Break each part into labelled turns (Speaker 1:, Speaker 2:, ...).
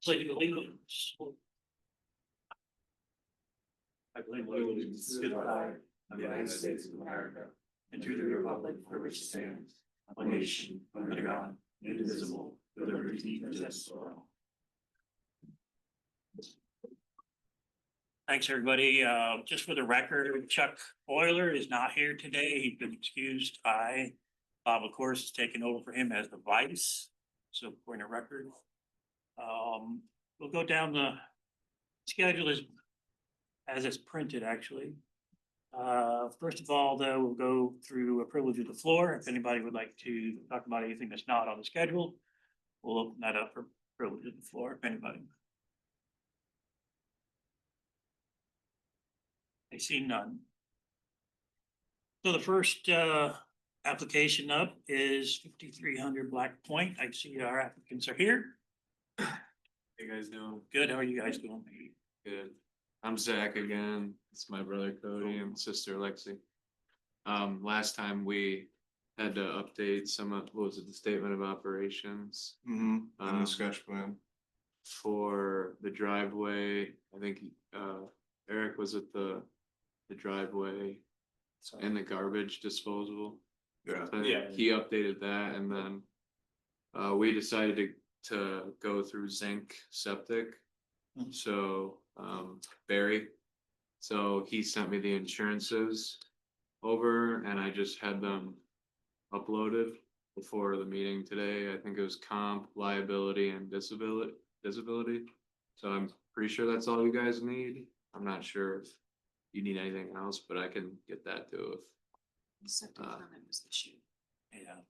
Speaker 1: So you leave it. I blame
Speaker 2: allegiance to the flag of the United States of America and to the republic for which it stands, one nation, under God, indivisible, with liberty and justice for all.
Speaker 1: Thanks, everybody. Uh, just for the record, Chuck Euler is not here today. He's been excused. I, Bob, of course, has taken over for him as the vice. So point of record. Um, we'll go down the schedule as, as it's printed, actually. Uh, first of all, though, we'll go through a privilege of the floor. If anybody would like to talk about anything that's not on the schedule, we'll open that up for privilege of the floor, if anybody. I see none. So the first uh application up is fifty-three hundred Black Point. I see our applicants are here.
Speaker 3: Hey guys doing?
Speaker 1: Good, how are you guys doing?
Speaker 3: Good. I'm Zach again. It's my brother Cody and sister Lexi. Um, last time we had to update some of, what was it, the statement of operations?
Speaker 2: Mm-hmm,
Speaker 3: Um,
Speaker 2: sketch plan.
Speaker 3: For the driveway, I think uh Eric was at the, the driveway and the garbage disposal.
Speaker 2: Yeah.
Speaker 3: So Uh, He updated that and then uh, we decided to, to go through zinc septic.
Speaker 1: Mhm.
Speaker 3: So, um, Barry, so he sent me the insurances over and I just had them uploaded before the meeting today. I think it was comp, liability and disability, disability. So I'm pretty sure that's all you guys need. I'm not sure if you need anything else, but I can get that too if
Speaker 4: Septic
Speaker 3: Uh,
Speaker 4: permit was issued.
Speaker 1: Yeah,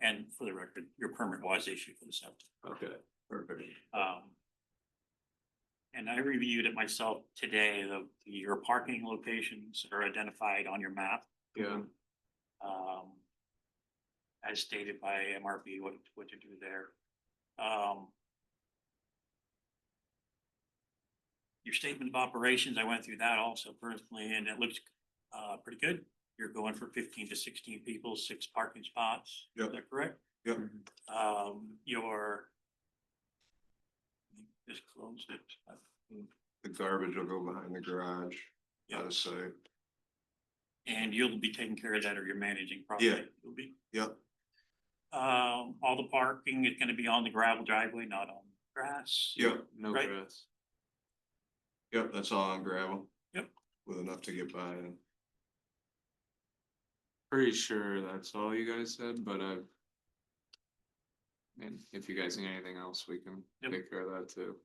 Speaker 1: and for the record, your permit was issued for the septic.
Speaker 3: Okay,
Speaker 2: Perfect.
Speaker 1: Um. And I reviewed it myself today, the, your parking locations are identified on your map.
Speaker 3: yeah,
Speaker 1: um, as stated by MRB, what, what to do there. Um, your statement of operations, I went through that also personally, and it looks, uh, pretty good. You're going for fifteen to sixteen people, six parking spots. Is
Speaker 2: Yep.
Speaker 1: that correct?
Speaker 3: Mm-hmm.
Speaker 2: Yep.
Speaker 1: Um, your just closed it.
Speaker 2: The garbage will go behind the garage,
Speaker 1: out of
Speaker 2: sight.
Speaker 1: And you'll be taking care of that or you're managing property.
Speaker 2: Yeah.
Speaker 1: You'll be.
Speaker 2: Yep.
Speaker 1: Um, all the parking is gonna be on the gravel driveway, not on grass.
Speaker 2: Yep,
Speaker 3: no
Speaker 1: Right.
Speaker 3: grass.
Speaker 2: yep, that's all on gravel.
Speaker 1: Yep.
Speaker 2: With enough to get by and.
Speaker 3: Pretty sure that's all you guys said, but I've. And if you guys need anything else, we can
Speaker 1: Yep.
Speaker 3: take care of that too.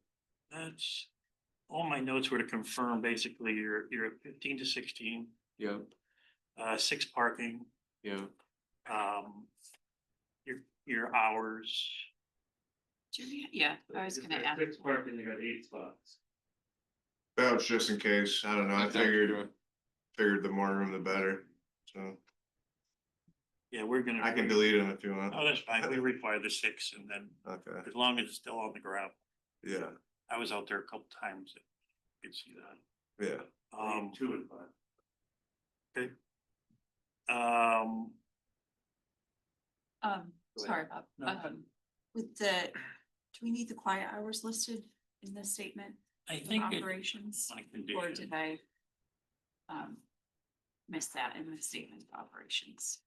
Speaker 1: That's, all my notes were to confirm basically you're, you're at fifteen to sixteen,
Speaker 3: Yep,
Speaker 1: uh, six parking,
Speaker 3: yep,
Speaker 1: um, your, your hours.
Speaker 4: Do we, yeah, I was gonna add,
Speaker 1: parking, you got eight spots.
Speaker 2: That was just in case, I don't know, I
Speaker 3: That's figured- extra.
Speaker 2: figured the more room the better, so
Speaker 1: Yeah, we're gonna.
Speaker 2: delete them if you want.
Speaker 1: Oh, that's fine. We require the six and then
Speaker 2: Okay,
Speaker 1: as long as it's still on the gravel.
Speaker 2: yeah,
Speaker 1: I was out there a couple times. I Could see that.
Speaker 2: yeah.
Speaker 1: Um. Two and five. Okay. Um,
Speaker 4: um,
Speaker 1: Go
Speaker 4: sorry, Bob,
Speaker 1: No.
Speaker 4: um, with the, do we need the quiet hours listed in this statement
Speaker 1: I
Speaker 4: of
Speaker 1: think it-
Speaker 4: operations?
Speaker 1: on a
Speaker 4: Or
Speaker 1: condition,
Speaker 4: did I um, miss that in the statement of operations?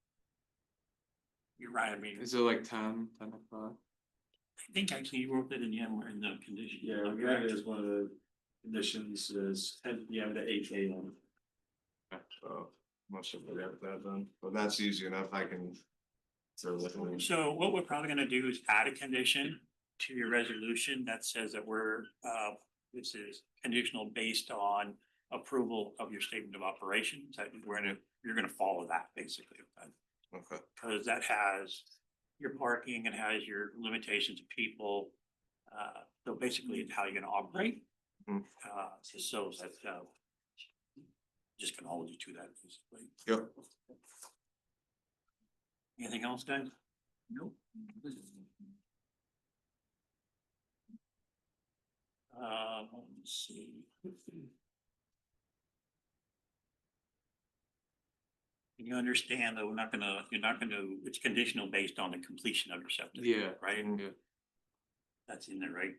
Speaker 1: you're right, I mean,
Speaker 3: is it like ten, ten o'clock?
Speaker 1: I think actually you wrote that in the, end, in the condition.
Speaker 5: Yeah,
Speaker 1: Okay.
Speaker 5: that is one of the conditions is, and you have the AK on.
Speaker 2: So, must have forgot that then, but that's easy enough, I can. So,
Speaker 1: So what we're probably gonna do is add a condition to your resolution that says that we're, uh, this is conditional based on approval of your statement of operations. That we're gonna, you're gonna follow that basically.
Speaker 2: okay,
Speaker 1: because that has your parking, it has your limitations of people. Uh, so basically it's how you're gonna operate.
Speaker 2: Mhm.
Speaker 1: Uh, so that's, uh, just gonna hold you to that basically.
Speaker 2: Yep.
Speaker 1: Anything else, guys? Nope. Uh, let's see. You understand that we're not gonna, you're not gonna, it's conditional based on the completion of your septic.
Speaker 3: Yeah,
Speaker 1: Right,
Speaker 3: yeah,
Speaker 1: that's in there, right?